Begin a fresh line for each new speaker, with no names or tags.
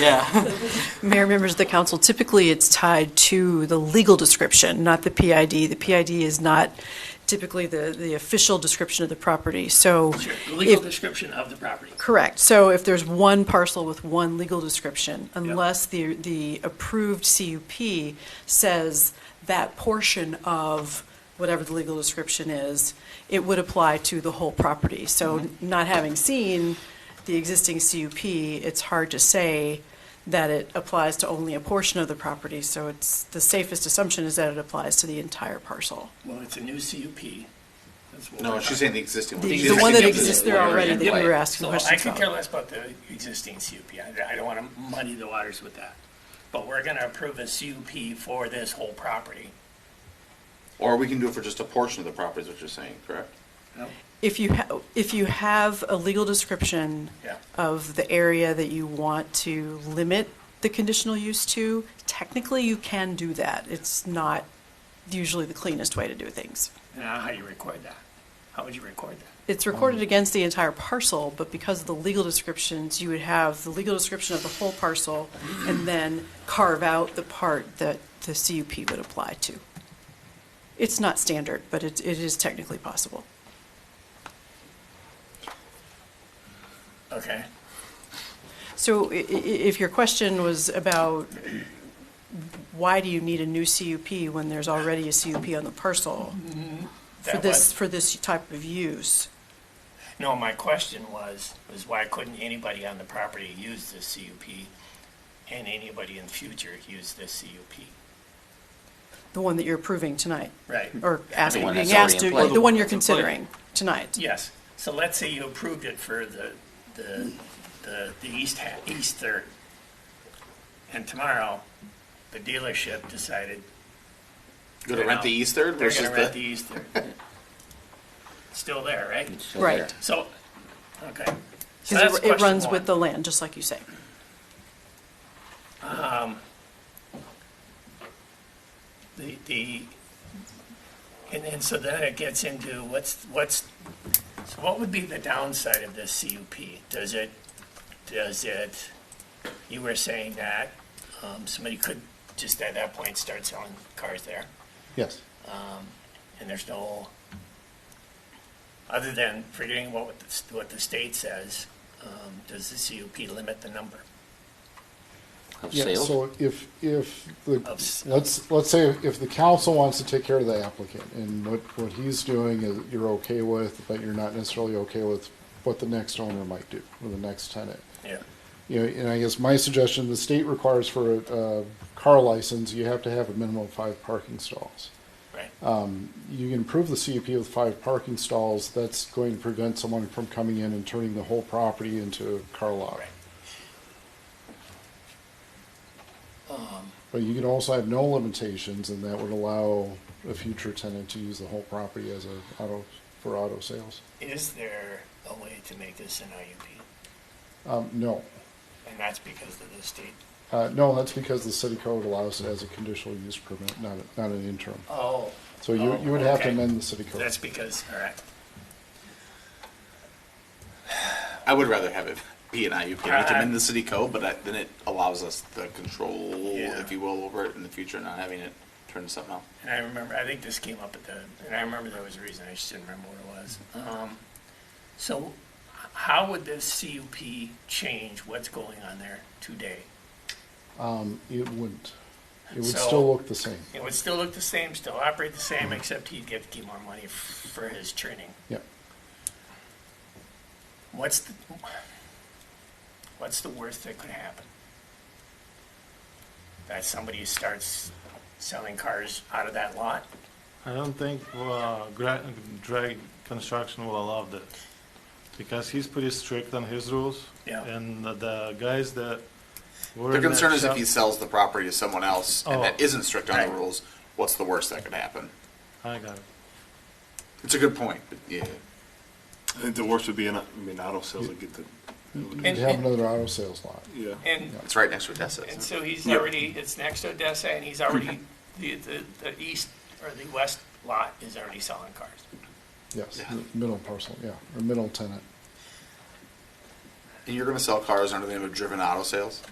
Yeah.
Mayor, members of the council, typically it's tied to the legal description, not the PID. The PID is not typically the, the official description of the property, so.
Sure, the legal
if-
description of the property.
Correct. So if there's one parcel with one legal description, unless the, the approved CUP says that portion of whatever the legal description is, it would apply to the whole property. So not having seen the existing CUP, it's hard to say that it applies to only a portion of the property. So it's, the safest assumption is that it applies to the entire parcel.
Well, it's a new CUP. That's what
No,
we're
she's
talking
saying the existing one.
The-
She's
the one that
saying the
exists there
one
already that
in
we
play.
were asking
So I
questions
could care
about.
less about the existing CUP. I, I don't want to muddy the waters with that. But we're going to approve a CUP for this whole property.
Or we can do it for just a portion of the property, is what you're saying, correct?
No?
If you, ha- if you have a legal description
Yeah.
of the area that you want to limit the conditional use to, technically you can do that. It's not usually the cleanest way to do things.
Now, how do you record that? How would you record that?
It's recorded against the entire parcel, but because of the legal descriptions, you would have the legal description of the whole parcel and then carve out the part that the CUP would apply to. It's not standard, but it, it is technically possible.
Okay.
So i- i- if your question was about why do you need a new CUP when there's already a CUP on the parcel for
Mm-hmm. That
this,
was-
for this type of use?
No, my question was, was why couldn't anybody on the property use this CUP and anybody in future use this CUP?
The one that you're approving tonight?
Right.
Or asking,
one
being
that's already
asked
in
to,
play.
the one you're
That's in play.
considering tonight?
Yes, so let's say you approved it for the, the, the, the east ha, east third. And tomorrow, the dealership decided
Go to rent the east third
they're
versus
gonna rent the
the,
east third. Still there, right?
So there.
Right.
So, okay. So that's
Because it
question
runs
one.
with the land, just like you say.
The, the, and then, so then it gets into what's, what's, so what would be the downside of this CUP? Does it, does it, you were saying that, um, somebody could just at that point start selling cars there, Um,
Yes.
and there's no, other than forgetting what, the s- what the state says, um, does the CUP limit the number?
Of
Yeah,
sales?
so if, if
Of
the,
s-
let's, let's say if the council wants to take care of the applicant and what, what he's doing is you're okay with, but you're not necessarily okay with what the next owner might do or the next tenant.
Yeah,
You know, and I guess my suggestion, the state requires for a, a car license, you have to have a minimum of five parking stalls.
right.
You can improve the CUP with five parking stalls, that's going to prevent someone from coming in and turning the whole property into a car lot.
Right.
Um. But you can also have no limitations, and that would allow a future tenant to use the whole property as a auto, for auto sales.
Is there a way to make this an IUP?
Um, no.
And that's because of the state
Uh, no, that's because the city code allows it as a conditional use permit, not, a- not an interim.
Oh.
So you, you would have to
Okay.
amend the city code.
That's because, all right.
I would rather have it be an IUP. We
I-
can amend the city code, but that- then it allows us the control,
Yeah.
if you will, over it in the future, not having it turn to something else.
And I remember, I think this came up at the, and I remember there was a reason, I just didn't remember what it was. Um, so h- how would this CUP change what's going on there today?
It wouldn't. It would
So-
still look the same.
It would still look the same, still operate the same, except he'd get to keep more money f- for his training.
Yeah.
What's the, what's the worst that could happen? That somebody starts selling cars out of that lot?
I don't think uh, Gra- Drag Construction will allow that because he's pretty strict on his rules.
Yeah.
And the- the guys that were
The
in that
concern is if
shop-
he sells the property to someone else and that
Oh.
isn't strict on the
Right.
rules, what's the worst that could happen?
I got it.
It's a good point, but yeah.
I think the worst would be an, I mean, auto sales would get the,
You'd have another auto sales lot.
yeah.
And
It's right next to Odessa.
And
isn't
so he's already, it's next to Odessa, and he's already, the, the, the east or the west lot is already selling cars.
Yes,
Yeah.
middle parcel, yeah, or middle tenant.
it? And you're going to sell cars under the name of driven auto sales?